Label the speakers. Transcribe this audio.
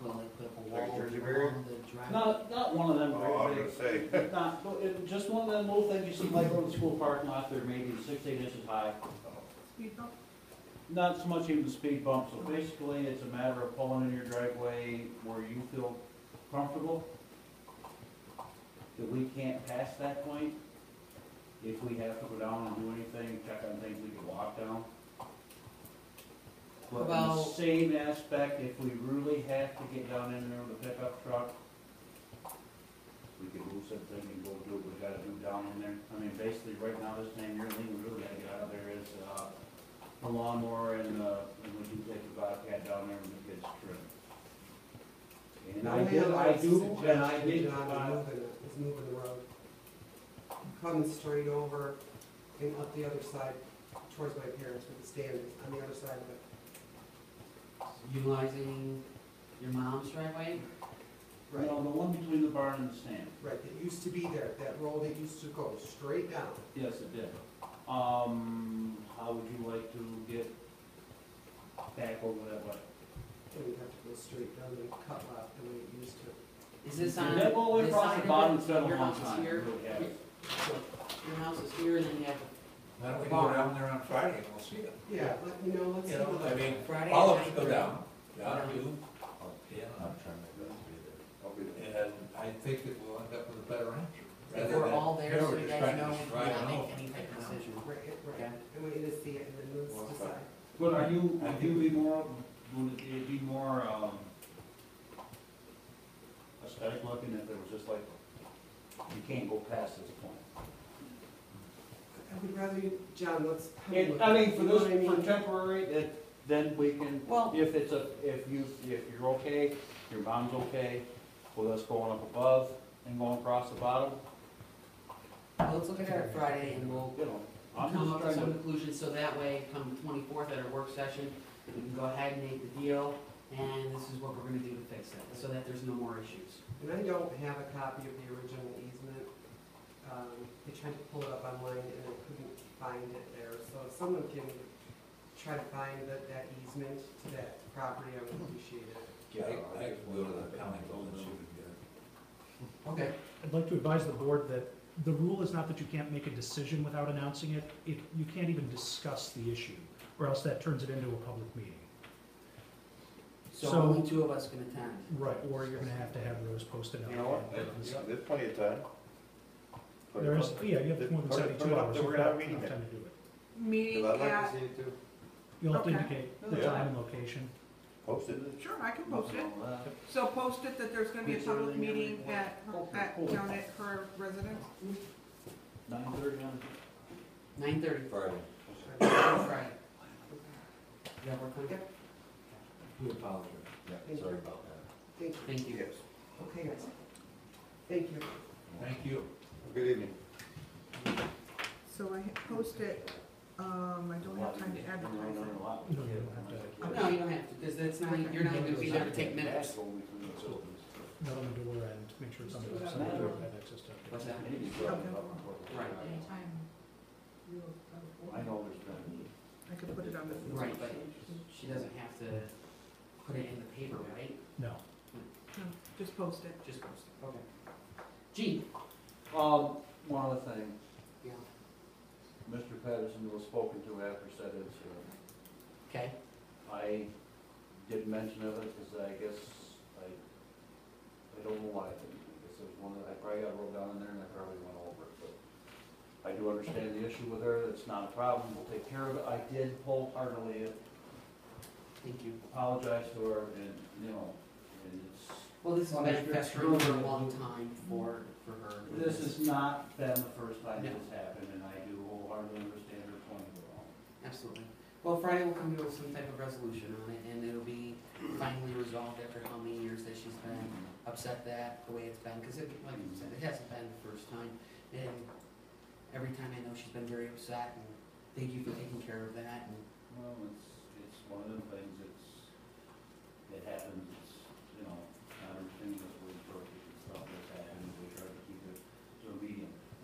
Speaker 1: put up a
Speaker 2: Like
Speaker 1: wall
Speaker 2: Jersey barrier?
Speaker 1: along the driveway.
Speaker 3: Not, not one of them
Speaker 2: Oh, I was
Speaker 3: very
Speaker 2: gonna
Speaker 3: big,
Speaker 2: say,
Speaker 3: not, but it- just one of them little things you see like on the school parking lot, they're maybe six, eight inches high. Not so much even speed bump, so basically it's a matter of pulling in your driveway where you feel comfortable. That we can't pass that point. If we have to go down and do anything, check on things we can walk down. But in the
Speaker 1: Well-
Speaker 3: same aspect, if we really have to get down in there with a pickup truck, we can move something and go do what we gotta do down in there. I mean, basically, right now, this thing, the only thing we really gotta get out of there is, uh, the lawnmower and, uh, and we do take the Bobcat down there and it gets trimmed. And I do, I do, and I did, uh,
Speaker 4: Moving it, is moving the road. Coming straight over and up the other side towards my parents with the stand on the other side of it.
Speaker 1: Utilizing your mom's driveway?
Speaker 3: you know, the one between the barn and the stand.
Speaker 4: Right, that used to be there, that road that used to go straight down.
Speaker 3: Yes, it did. Um, how would you like to get back over that way?
Speaker 4: And we'd have to go straight down and cut left the way it used to.
Speaker 1: Is this on?
Speaker 3: That all the way
Speaker 1: this
Speaker 3: across
Speaker 1: side
Speaker 3: the
Speaker 1: of
Speaker 3: bottom,
Speaker 1: it?
Speaker 3: it's been a
Speaker 1: Your
Speaker 3: long
Speaker 1: house is
Speaker 3: time, it
Speaker 1: here?
Speaker 3: really has.
Speaker 1: Your house is here and then you have
Speaker 5: Why don't we go down there on Friday and we'll see it?
Speaker 4: Yeah, let, you know, let's see
Speaker 5: You know,
Speaker 4: what
Speaker 5: I
Speaker 4: the,
Speaker 5: mean,
Speaker 1: Friday.
Speaker 5: all of
Speaker 1: at
Speaker 5: us go
Speaker 1: 9:30.
Speaker 5: down, down to you, or Dan, I'm trying
Speaker 2: I'll be
Speaker 5: to And I think that we'll end up with a better answer.
Speaker 1: If
Speaker 5: rather
Speaker 1: we're
Speaker 5: than-
Speaker 1: all there,
Speaker 5: Yeah,
Speaker 1: so
Speaker 5: we're
Speaker 1: you
Speaker 5: just
Speaker 1: guys
Speaker 5: trying to
Speaker 1: know
Speaker 5: just
Speaker 1: we're
Speaker 5: ride
Speaker 1: not
Speaker 5: it out.
Speaker 1: making any type of decision.
Speaker 4: right, right,
Speaker 1: Okay.
Speaker 4: I want you to see it and then
Speaker 2: Well,
Speaker 4: let's decide.
Speaker 3: But are you,
Speaker 5: I
Speaker 3: would
Speaker 5: think
Speaker 3: you be more, would it be more, um, aesthetic looking if there was just like, you can't go past this point?
Speaker 4: I would rather you, John, let's. have a
Speaker 3: And,
Speaker 4: look
Speaker 3: I
Speaker 4: at it,
Speaker 3: mean, for
Speaker 4: you know
Speaker 3: those,
Speaker 4: what I mean?
Speaker 3: for temporary, that, then we can,
Speaker 1: Well-
Speaker 3: if it's a, if you, if you're okay, your mom's okay with us going up above and going across the bottom,
Speaker 1: Well, let's look at it Friday and we'll
Speaker 3: you know, I'm
Speaker 1: come
Speaker 3: just
Speaker 1: up with
Speaker 3: trying
Speaker 1: some
Speaker 3: to.
Speaker 1: conclusion, so that way, come the twenty-fourth at our work session, we can go ahead and make the deal, and this is what we're gonna do to fix it, so that there's no more issues.
Speaker 4: And I don't have a copy of the original easement. Um, I tried to pull it up online and I couldn't find it there. So if someone can try to find that, that easement to that property, I would appreciate it.
Speaker 5: I, I can go to the county building and see
Speaker 1: Okay.
Speaker 6: I'd like to advise the board that the rule is not that you can't make a decision without announcing it. It, you can't even discuss the issue, or else that turns it into a public meeting.
Speaker 1: So
Speaker 6: So-
Speaker 1: only two of us can attend.
Speaker 6: Right. Or you're gonna have to have those posted up.
Speaker 3: You know what?
Speaker 2: There's plenty of time. Put it
Speaker 6: There is,
Speaker 2: up.
Speaker 6: yeah, you have more than
Speaker 2: Put it- put it
Speaker 6: seventy-two
Speaker 2: up
Speaker 6: hours.
Speaker 2: there, We're
Speaker 6: You've
Speaker 2: gonna have
Speaker 6: got
Speaker 2: a meeting
Speaker 6: enough
Speaker 2: then.
Speaker 6: time to do it.
Speaker 7: Meeting
Speaker 2: Cause I'd like
Speaker 7: at,
Speaker 2: to see it too.
Speaker 6: You'll have to
Speaker 7: Okay.
Speaker 6: indicate the
Speaker 2: Yeah.
Speaker 6: time and location.
Speaker 2: Post it.
Speaker 7: sure, I can post it. So post it that there's gonna be a
Speaker 3: Make sure
Speaker 7: public
Speaker 3: they never
Speaker 7: meeting
Speaker 3: report.
Speaker 7: at, her- at, down at her residence.
Speaker 3: Nine thirty on
Speaker 1: Nine thirty,
Speaker 5: Friday.
Speaker 1: Friday. Does that work for you?
Speaker 5: We apologize.
Speaker 4: Thank
Speaker 5: Yeah,
Speaker 4: you.
Speaker 5: sorry about that.
Speaker 4: Thank you.
Speaker 1: Thank you.
Speaker 4: Okay, guys. Thank you.
Speaker 5: Thank you.
Speaker 2: Good evening.
Speaker 7: So I ha- post it, um, I don't have time to advertise it.
Speaker 6: No, you don't have to.
Speaker 1: No, you don't have to, because that's not, you're not gonna be there to take minutes.
Speaker 6: Not on the door end, make sure it's on the
Speaker 7: Just do
Speaker 6: website,
Speaker 3: that.
Speaker 6: you have access to it.
Speaker 1: What's that? Right.
Speaker 3: I know there's been.
Speaker 7: I could put it on the.
Speaker 1: Right, but she doesn't have to put it in the paper, right?
Speaker 6: No.
Speaker 7: No, Just post it.
Speaker 1: Just post it. Okay. Gee.
Speaker 3: Um, one other thing,
Speaker 1: Yeah.
Speaker 3: Mr. Patterson was spoken to after said uh, incident.
Speaker 1: Okay.
Speaker 3: I did mention of it, because I guess I, I don't know why, I didn't. I guess it was one that, I probably got rolled down in there and I probably went over it, but I do understand the issue with her, it's not a problem, we'll take care of it, I did wholeheartedly
Speaker 1: Thank you.
Speaker 3: apologize to her, and, you know, and it's,
Speaker 1: Well, this has
Speaker 3: Well,
Speaker 1: been
Speaker 3: Mr.
Speaker 1: festering for a
Speaker 3: Schroeder-
Speaker 1: long time for, for her.
Speaker 3: this has not been the first time
Speaker 1: No.
Speaker 3: this happened, and I do wholeheartedly understand her point of view.
Speaker 1: Absolutely. Well, Friday will come to some type of resolution on it, and it'll be finally resolved after how many years that she's been upset that, the way it's been, because it, like you said, it hasn't been the first time. And every time I know she's been very upset, and thank you for taking care of that, and
Speaker 3: Well, it's, it's one of them things, it's, it happens,